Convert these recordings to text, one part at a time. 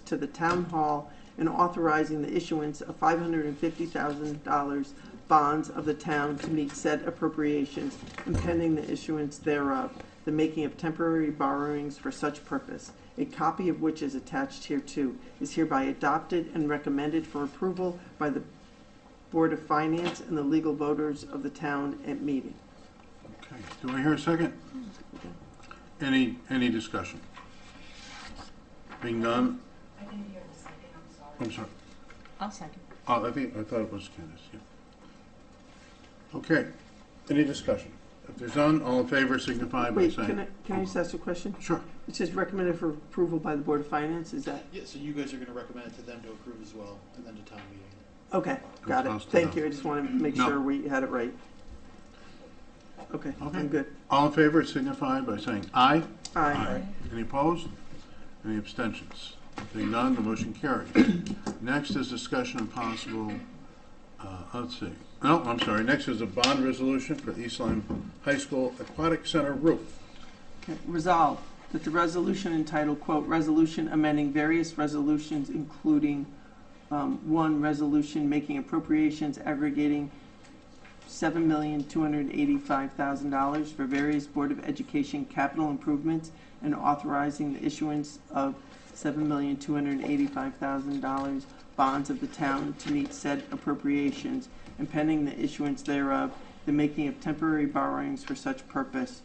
to the town hall and authorizing the issuance of five hundred and fifty thousand dollars bonds of the town to meet said appropriations and pending the issuance thereof, the making of temporary borrowings for such purpose, a copy of which is attached hereto, is hereby adopted and recommended for approval by the Board of Finance and the legal voters of the town at meeting. Okay, do I hear a second? Any, any discussion? Being done, I didn't hear the second, I'm sorry. I'm sorry, I'll second. oh, I think, I thought it was Candace, yeah. Okay, any discussion? If there's none, all in favor signify by Wait, can I, saying. can I just ask a question? Sure, It says recommended for approval by the Board of Finance, is that, Yeah, so you guys are gonna recommend it to them to approve as well, and then to town meeting. okay, got it. Sounds good. Thank you, I just want to make No. sure we had it right. Okay, Okay. I'm good. all in favor signify by saying aye. Aye. Any opposed? Any abstentions? Being none, the motion carries. Next is discussion and possible, uh, let's see, no, I'm sorry, next is a bond resolution for East Lyme High School Aquatic Center roof. Okay, Resolved that the resolution entitled, quote, "Resolution amending various resolutions including, um, one, resolution making appropriations aggregating seven million two hundred eighty-five thousand dollars for various Board of Education capital improvements and authorizing the issuance of seven million two hundred eighty-five thousand dollars bonds of the town to meet said appropriations and pending the issuance thereof, the making of temporary borrowings for such purpose.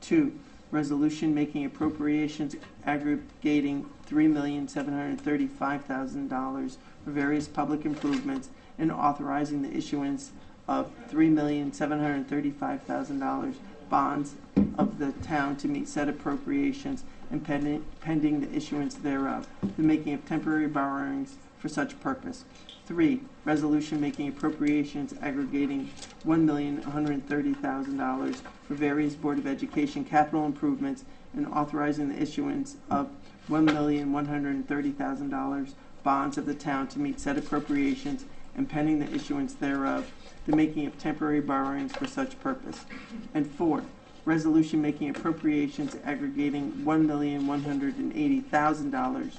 Two, resolution making appropriations aggregating three million seven hundred thirty-five thousand dollars for various public improvements and authorizing the issuance of three million seven hundred thirty-five thousand dollars bonds of the town to meet said appropriations and pending, pending the issuance thereof, the making of temporary borrowings for such purpose. Three, resolution making appropriations aggregating one million one hundred thirty thousand dollars for various Board of Education capital improvements and authorizing the issuance of one million one hundred thirty thousand dollars bonds of the town to meet said appropriations and pending the issuance thereof, the making of temporary borrowings for such purpose. And four, resolution making appropriations aggregating one million one hundred and eighty thousand dollars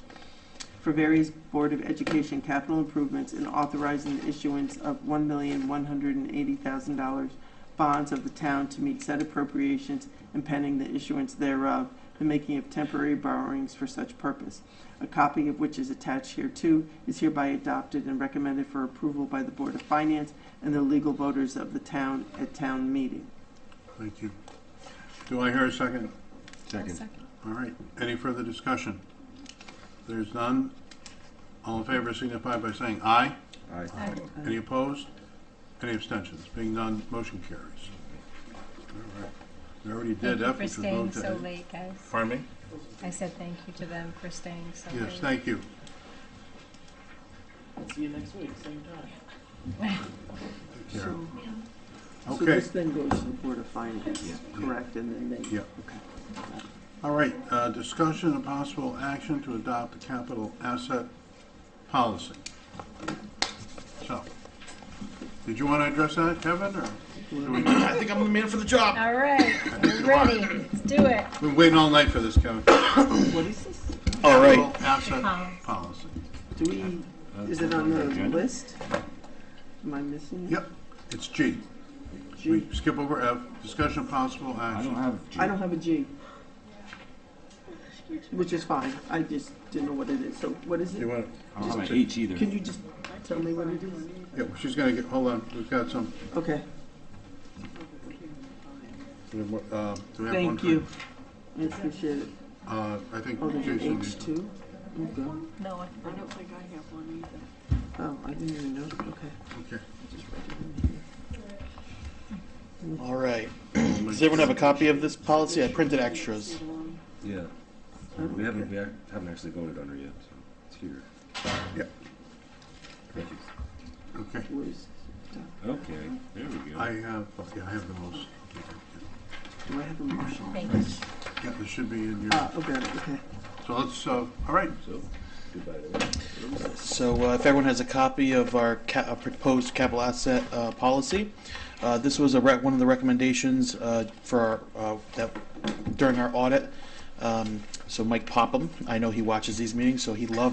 for various Board of Education capital improvements and authorizing the issuance of one million one hundred and eighty thousand dollars bonds of the town to meet said appropriations and pending the issuance thereof, the making of temporary borrowings for such purpose. A copy of which is attached hereto is hereby adopted and recommended for approval by the Board of Finance and the legal voters of the town at town meeting. Thank you. Do I hear a second? I'll Second. second. All right, any further discussion? There's none, all in favor signify by saying aye. Aye. Any opposed? Any abstentions? Being none, motion carries. All right. We already did Thank you F, for which was voted staying to A. so late, guys. Pardon me? I said thank you to them for staying so late. Yes, thank you. See you next week, same time. Take care. So, so Okay, this then goes to the Board of Finance, correct, and then they. Yeah. Okay. all right, uh, discussion and possible action to adopt the capital asset policy. So, did you want to address that, Kevin, or? do we- I think I'm the man for the job. All right, we're ready. Let's do it. We've been waiting all night for this, Kevin. What is this? All Capital right. asset Policy. policy. Do we, is it on the Agenda? list? Am I missing it? Yep, it's G. We G. skip over F, discussion and possible I action. don't have. I don't have a G. Which is fine, I just didn't know what it is, so what is You it? want, I don't have an H either. Can you just tell me what it is? yeah, well, she's gonna get, hold on, we've got some, Okay, we have one- uh, do we have one? thank for- you. I appreciate it. Uh, I think Oh, there's an Jason H needs. two? Okay. No one. I don't think I have one either. Oh, I didn't even know, okay. Okay. All right. Does everyone have a copy of this policy? I printed extras. Yeah. We haven't, we ac- haven't actually voted on her yet, so it's here. Yep. Thank you. Okay, Where's, Okay, there we I have, okay, I have the most, do I have a motion? Thank you. yeah, this should be in your, Ah, okay, okay. so let's, uh, all right, So, goodbye to that. So uh, if everyone has a copy of our ca- uh, proposed capital asset uh, policy, uh, this was a rec- one of the recommendations uh, for our, uh, that during our audit. Um, so Mike Popham, I know he watches these meetings, so he loved.